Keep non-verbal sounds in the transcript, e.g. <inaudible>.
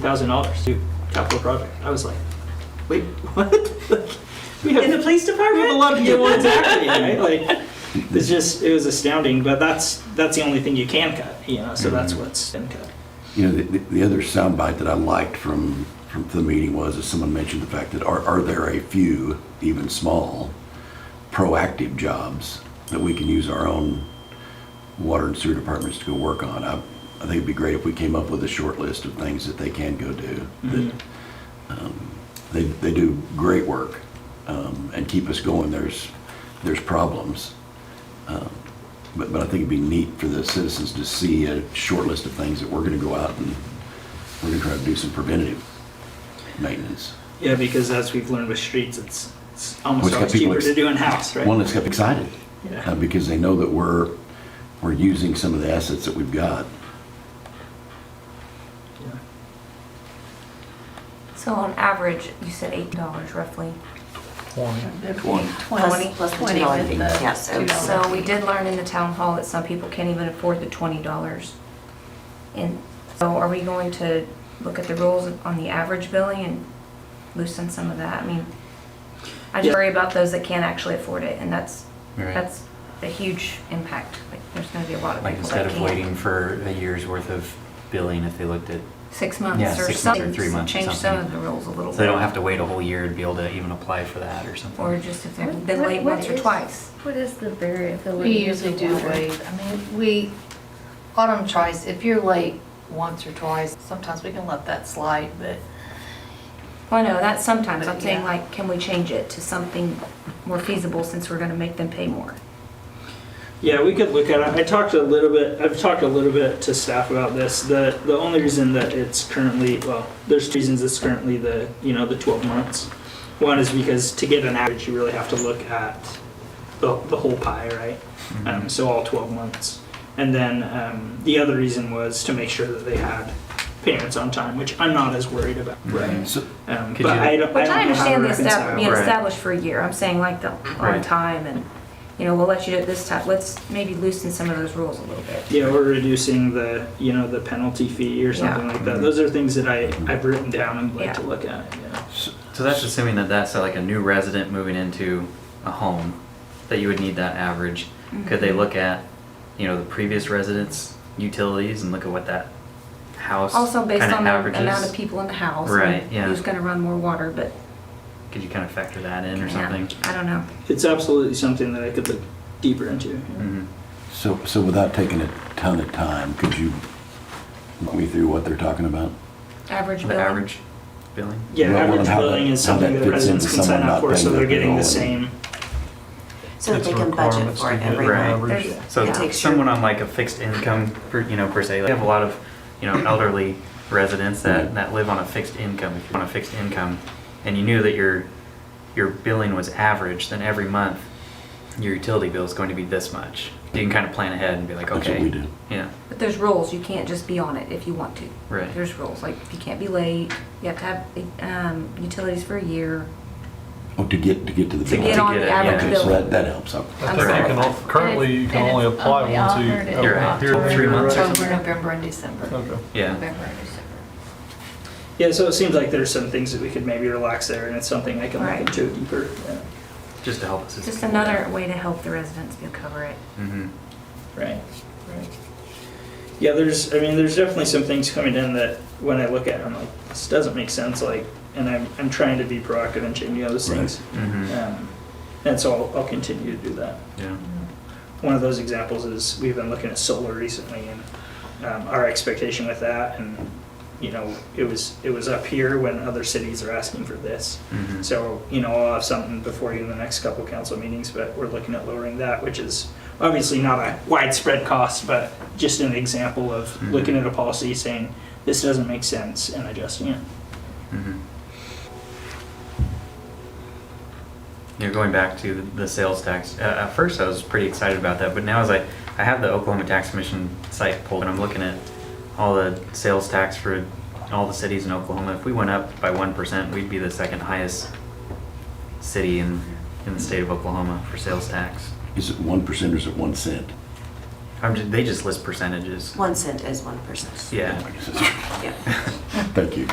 thousand dollars to capital project. I was like, wait, <laughs> what? we have, In the police we department? have a lot of <laughs> yeah, well, exactly, right? Like, it's just it was astounding. But that's that's the only thing you can cut, you know. So that's Mm-hmm. what's been cut. You know, the, the other soundbite that I liked from, from the meeting was that someone mentioned the fact that are, are there a few, even small, proactive jobs that we can use our own water and sewer departments to go work on? I, I think it'd be great if we came up with a short list of things that they can go do. That, um, they, they do great work um, and keep us going. There's, there's problems. But, but I think it'd be neat for the citizens to see a short list of things that we're gonna go out and we're gonna try to do some preventative maintenance. Yeah, because as we've learned with streets, it's, it's almost Which got always people cheaper ex- to do in house, right? One that's kept excited, yeah. uh, because they know that we're, we're using some of the assets that we've got. yeah. So on average, you said eight dollars roughly. Twenty. Plus the Twenty $2 with fee. the Yes, so- $2 so we did learn in the town hall that some people can't even afford the twenty dollars. And so are we going to look at the rules on the average billing and loosen some of that? I mean, I Yeah. just worry about those that can't actually afford it, and that's, Right. that's a huge impact. Like, there's gonna be a lot of Like people instead that of waiting can't. for a year's worth of billing, if they looked at, Six Yeah, months or six months or something, three months or change some of something. the rules a little bit. so they don't have to wait a whole year to be able to even apply for that or something. Or just if they've been What- late what once or is- twice. What is the variability? We of usually the do water? wait, I mean, we, autumn tries, if you're late once or twice, sometimes we can let that slide, but Well, no, that's sometimes, I'm saying Yeah. like, can we change it to something more feasible since we're gonna make them pay more? Yeah, we could look at it. I talked a little bit, I've talked a little bit to staff about this. The, the only reason that it's currently, well, there's two reasons it's currently the, you know, the 12 months. One is because to get an average, you really have to look at the, the whole pie, right? Mm-hmm. Um, so all 12 months. And then um, the other reason was to make sure that they had payments on time, which I'm not as worried about. Right. So, Um, Could but you- I don't, Which don't I know how to understand the reconcile. estab- being Right. established for a year, I'm saying like the on Right. time and, you know, we'll let you do it this time, let's maybe loosen some of those rules a little bit. Yeah, or reducing the, you know, the penalty fee or something like that. Those are things that I, I've written down and like to Yeah. look at, yeah. So that's assuming that that's uh, like a new resident moving into a home, that you would need that average. Could Mm-hmm. they look at, you know, the previous residents' utilities and look at what that house Also based kinda on the amount averages? of people in the house. and Right, yeah. Who's gonna run more water, but. Could you kind of factor that in or yeah, something? I don't know. It's absolutely something that I could look deeper into. Mm-hmm. Mhm. so, so without taking a ton of time, could you walk me through what they're talking about? Average The bill. average billing? Yeah, Well, well, average and how that- billing is how that something that fits residents into can sign someone up not for, so paying they're their getting the bill same. So that It's they can budget requirements for to it get every Right. month. There's- So It takes someone your- on like a fixed income, per, you know, per se, like, I have a lot of, you know, elderly residents that, that live on a fixed income. If you're on a fixed income, and you knew that your your billing was average, then every month your utility bill is going to be this much. You can kind of plan ahead and be like, That's what okay, we do. yeah, But there's rules, you can't just be on it if you want to. Right. There's rules, like you can't be late, you have to have um, utilities for a year. Oh, to get, to get to the. To bill. Get to on get the it, average Okay, so bill. that, that helps. I- I I'm think sorry. you can, al- currently, you can only apply only once offered a in You're right. period of Three months or October, time. November, and December. Okay. yeah. November and December. Yeah, so it seems like there's some things that we could maybe relax there, and it's something I can look Right. into deeper. yeah. Just to help us. Just another way to help the residents be cover it. hmm Right, right. Yeah, there's, I mean, there's definitely some things coming in that when I look at, it, I'm like, this doesn't make sense, like, and I'm, I'm trying to be proactive and changing those Right. things. hmm Um, and so I'll, I'll continue to do that. Yeah. One of those examples is we've been looking at solar recently and um, our expectation with that and you know it was it was up here when other cities are asking for this. hmm So you know I'll have something before you in the next couple council meetings, but we're looking at lowering that, which is obviously not a widespread cost, but just an example of Mhm. looking at a policy saying this doesn't make sense and adjusting it. Mhm. You're going back to the- the sales tax. Uh, At first, I was pretty excited about that, but now as I, I have the Oklahoma Tax Commission site pulled, and I'm looking at all the sales tax for all the cities in Oklahoma. If we went up by one percent, we'd be the second highest city in, in the state of Oklahoma for sales tax. Is it one percent or is it one cent? I'm just, they just list percentages. One cent is one percent. Yeah. Thank <laughs> Yeah. you.